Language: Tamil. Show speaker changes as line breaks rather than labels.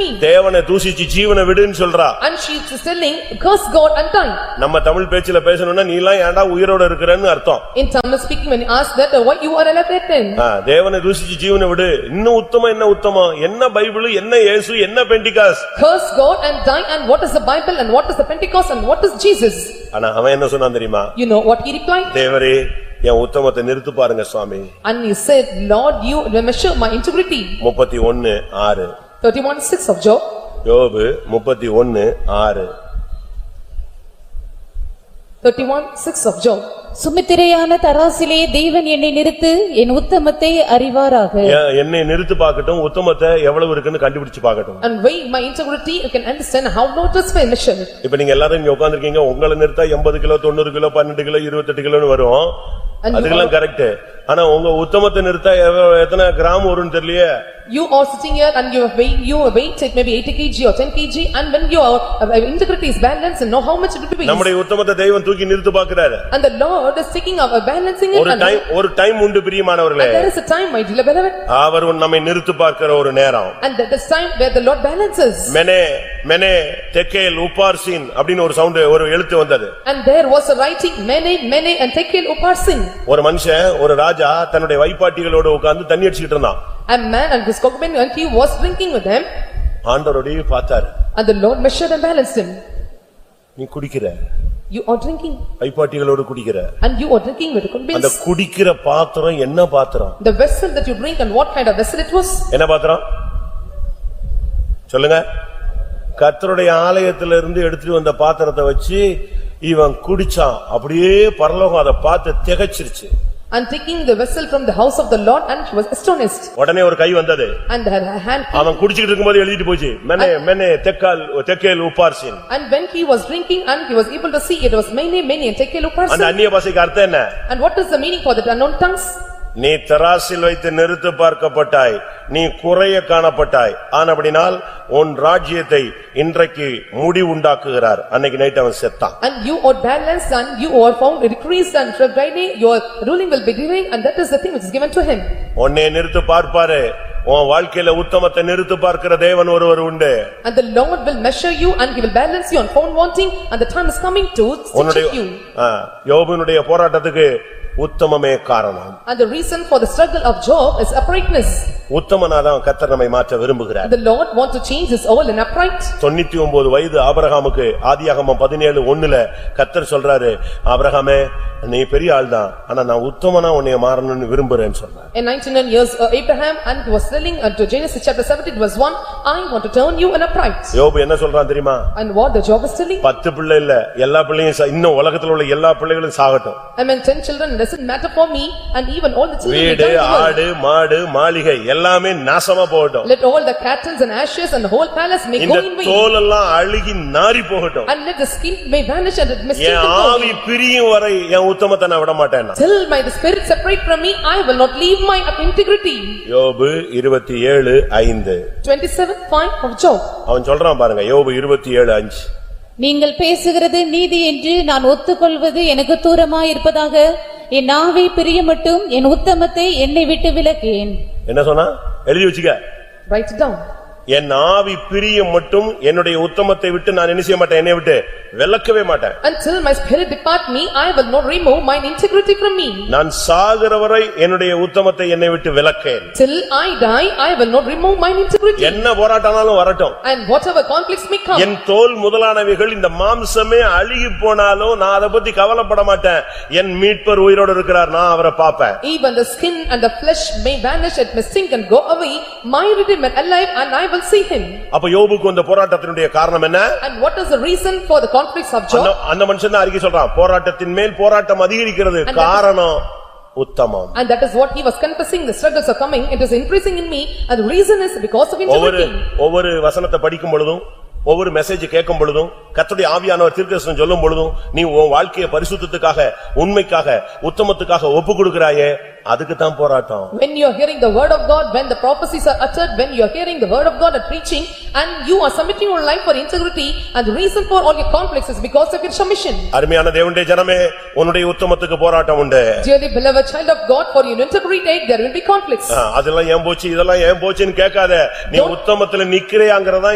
me.
தேவனை தூசிச்சு ஜீவனை விடுன்னு சொல்றா
And she is telling, curse God and die.
நம்ம தமிழ் பேச்சில பேசணும்னா நீ எல்லாம் ஏன்டா உயிரோட இருக்கிறன்னு அர்த்தம்
In Tamil speaking, when you ask that, uh, why you are alive yet then?
ஆ, தேவனை தூசிச்சு ஜீவனை விடு இன்னும் உத்தமம் என்ன உத்தமம் என்ன பைபிள் என்ன இயேசு என்ன Pentecost
Curse God and die and what is the Bible and what is the Pentecost and what is Jesus?
ஆனா அவன் என்ன சொன்னான் தெரியுமா
You know what he replied?
தேவரே என் உத்தமத்தை நிறுத்து பாருங்க சுவாமி
And he said, Lord, you will measure my integrity.
முப்பத்தி ஒன்னு ஆறு
Thirty-one six of Job,
யோபு முப்பத்தி ஒன்னு ஆறு
thirty-one six of Job.
சுமித்திரையான தராசிலே தேவன் என்னை நிறுத்து என் உத்தமத்தை அறிவாராக
ஏன் என்னை நிறுத்து பார்க்கட்டும் உத்தமத்தை எவ்வளவு இருக்குன்னு கண்டுபிடிச்சு பார்க்கட்டும்
And weigh my integrity, you can understand how not is my measure.
இப்ப நீங்க எல்லாரும் இங்க உட்கார்ந்திருக்கீங்க உங்களை நிறுத்தா எண்பது கிலோ தொண்ணூறு கிலோ பன்னெண்டு கிலோ இருபத்தெட்டு கிலோன்னு வரும்
And you
அதுக்கெல்லாம் கரெக்ட் ஆனா உங்க உத்தமத்தை நிறுத்தா எவ்வ- எத்தனை கிராம் வரும்னு தெரியலையே
You are sitting here and you are weighing, you are weight, it may be eighty kg or ten kg and when your uh, integrity is balanced and know how much it will be.
நம்முடைய உத்தமத்தை தெய்வம் தூக்கி நிறுத்து பாக்குறாரு
And the Lord is taking up, uh, balancing it
ஒரு
and
டைம் ஒரு டைம் உண்டு பிரியமானவர்களே
there is a time, my dear beloved,
அவர் உன் நம்மை நிறுத்து பார்க்கிற ஒரு நேரம்
and that is time where the Lord balances.
மெனே மெனே தெக்கேல் உப்பார்சின் அப்படின்னு ஒரு சவுண்ட் ஒரு எழுத்து வந்தது
And there was a writing, many, many and Tekel Uparsin,
ஒரு மனுஷன் ஒரு ராஜா தன்னுடைய வைப்பாட்டிகளோட உட்கார்ந்து தண்ணி அடிச்சிட்டு இருந்தான்
a man and his cockman and he was drinking with them
ஆண்டவரோடய பார்த்தாரு
and the Lord measured and balanced him.
நீ குடிக்கிற
You are drinking
வைப்பாட்டிகளோடு குடிக்கிற
and you are drinking with cockmans.
அந்த குடிக்கிற பாத்திரம் என்ன பாத்திரம்
The vessel that you drink and what kind of vessel it was?
என்ன பாத்திரம் சொல்லுங்க கர்த்தருடைய ஆலயத்துல இருந்து எடுத்துட்டு வந்த பாத்திரத்தை வச்சு இவன் குடிச்சான் அப்படியே பரலோகம் அதை பார்த்து திகைச்சிருச்சு
And taking the vessel from the house of the Lord and he was astonished.
உடனே ஒரு கை வந்தது
And her hand,
அவன் குடிச்சிட்டு இருக்கும்போது எழுதிட்டு போச்சு மெனே மெனே தெக்கால் தெக்கேல் உப்பார்சின்
and when he was drinking and he was able to see it was many, many and Tekel
அந்த
Uparsin.
அந்நிய பாசைக்கு அர்த்தம் என்ன
And what is the meaning for the unknown tongues?
நீ தராசில் வைத்து நிறுத்து பார்க்கப்பட்டாய் நீ குறைய காணப்பட்டாய் ஆனபடினால் உன் ராஜ்யத்தை இன்றைக்கு முடி உண்டாக்குகிறார் அன்னைக்கு நைட் அவன் செத்தான்
And you are balanced and you are found decreased and from Friday your ruling will be giving and that is the thing which is given to him.
உன்னை நிறுத்து பார்ப்பாரு உன் வாழ்க்கையில உத்தமத்தை நிறுத்து பார்க்கிற தேவன் ஒருவர் உண்டு
And the Lord will measure you and he will balance you on found wanting and the time is coming to
உன்னுடைய
stitch you.
ஆ, யோபுனுடைய போராட்டத்துக்கு உத்தமமே காரணம்
And the reason for the struggle of Job is uprightness.
உத்தமனாதான் கத்தர் நம்மை மாற்ற விரும்புகிறார்
The Lord want to change his all in upright.
தொண்ணூத்தி ஒன்பது வயது ஆபிரகாமுக்கு ஆதியாகமம் பதினேழு ஒண்ணுல கத்தர் சொல்றாரு ஆபிரகாமே நீ பெரிய ஆள்தான் ஆனா நான் உத்தமனா உன்னைய மாறணும்னு விரும்புறேன்னு சொன்னார்
In ninety-nine years uh, Abraham and he was telling unto Genesis chapter seventeen verse one, "I want to turn you in upright."
யோபு என்ன சொல்றான் தெரியுமா
And what the Job is telling?
பத்து பிள்ளை இல்ல எல்லா பிள்ளையும் சா- இன்னும் உலகத்துல உள்ள எல்லா பிள்ளைகளும் சாகட்டும்
I mean ten children doesn't matter for me and even all the children will
வீடு
die in the world.
ஆடு மாடு மாளிகை எல்லாமே நாசமா போகட்டும்
Let all the cattles and ashes and the whole palace may go
இந்த
in vain
தோல் எல்லாம் அழுகி நாறி போகட்டும்
and let the skin may vanish and it may still
என் ஆவி பிரியும் வரை என் உத்தமத்தை நான் விட மாட்டேன் நான்.
Till my the spirit separate from me, I will not leave my integrity.
யோபு இருபத்தி ஏழு ஐந்து
Twenty-seven five of Job.
அவன் சொல்றான் பாருங்க யோபு இருபத்தி ஏழு அஞ்சு
நீங்கள் பேசுகிறது நீதி என்று நான் ஒத்துக்கொள்வது எனக்கு தூரமாயிருப்பதாக என் நாவை பிரியமட்டும் என் உத்தமத்தை என்னை விட்டு விலக்கேன்
என்ன சொன்னா எழுதி வச்சுக்க
Write it down.
என் ஆவி பிரியம் மட்டும் என்னுடைய உத்தமத்தை விட்டு நான் என்ன செய்ய மாட்டேன் என்னை விட்டு விலக்கவே மாட்டேன்
Until my spirit depart me, I will not remove mine integrity from me.
நான் சாகிறவரை என்னுடைய உத்தமத்தை என்னை விட்டு விலக்கேன்
Till I die, I will not remove mine integrity.
என்ன போராட்டம்னாலும் வரட்டும்
And whatever conflicts may come,
என் தோல் முதலானவைகள் இந்த மாம்சமே அழுகி போனாலும் நான் அதை பத்தி கவலைப்பட மாட்டேன் என் மீட்பர் உயிரோடு இருக்கிறார் நான் அவரை பார்ப்பேன்
even the skin and the flesh may vanish, it may sink and go away, my redeemer alive and I will see him.
அப்ப யோபுக்கு இந்த போராட்டத்தினுடைய காரணம் என்ன
And what is the reason for the conflicts of
அந்த-
Job?
அந்த மனுஷன் தான் அறிக்கை சொல்றான் போராட்டத்தின் மேல் போராட்டம் அதிகரிக்கிறது
And that is-
காரணம் உத்தமம்
And that is what he was confessing, the struggles are coming, it is increasing in me and the reason is because of
ஒவ்வொரு
integrity.
ஒவ்வொரு வசனத்தை படிக்கும் பொழுதும் ஒவ்வொரு மெசேஜ் கேட்கும் பொழுதும் கர்த்தருடைய ஆவியானவர் தீர்க்கதரிசனம் சொல்லும் பொழுதும் நீ உன் வாழ்க்கையை பரிசுத்தத்துக்காக உண்மைக்காக உத்தமத்துக்காக ஒப்பு கொடுக்கிறாயே அதுக்கு தான் போராட்டம்
When you are hearing the word of God, when the prophecies are uttered, when you are hearing the word of God and preaching, and you are submitting your life for integrity, and the reason for all your conflicts is because of your submission.
அருமையான தேவனுடைய ஜனமே உன்னுடைய உத்தமத்துக்கு போராட்டம் உண்டு
Dearly beloved child of God, for your integrity, there will be conflicts.
ஆ, அதெல்லாம் ஏன் போச்சு இதெல்லாம் ஏன் போச்சுன்னு கேட்காத நீ உத்தமத்துல நிக்கிறையாங்கிறதா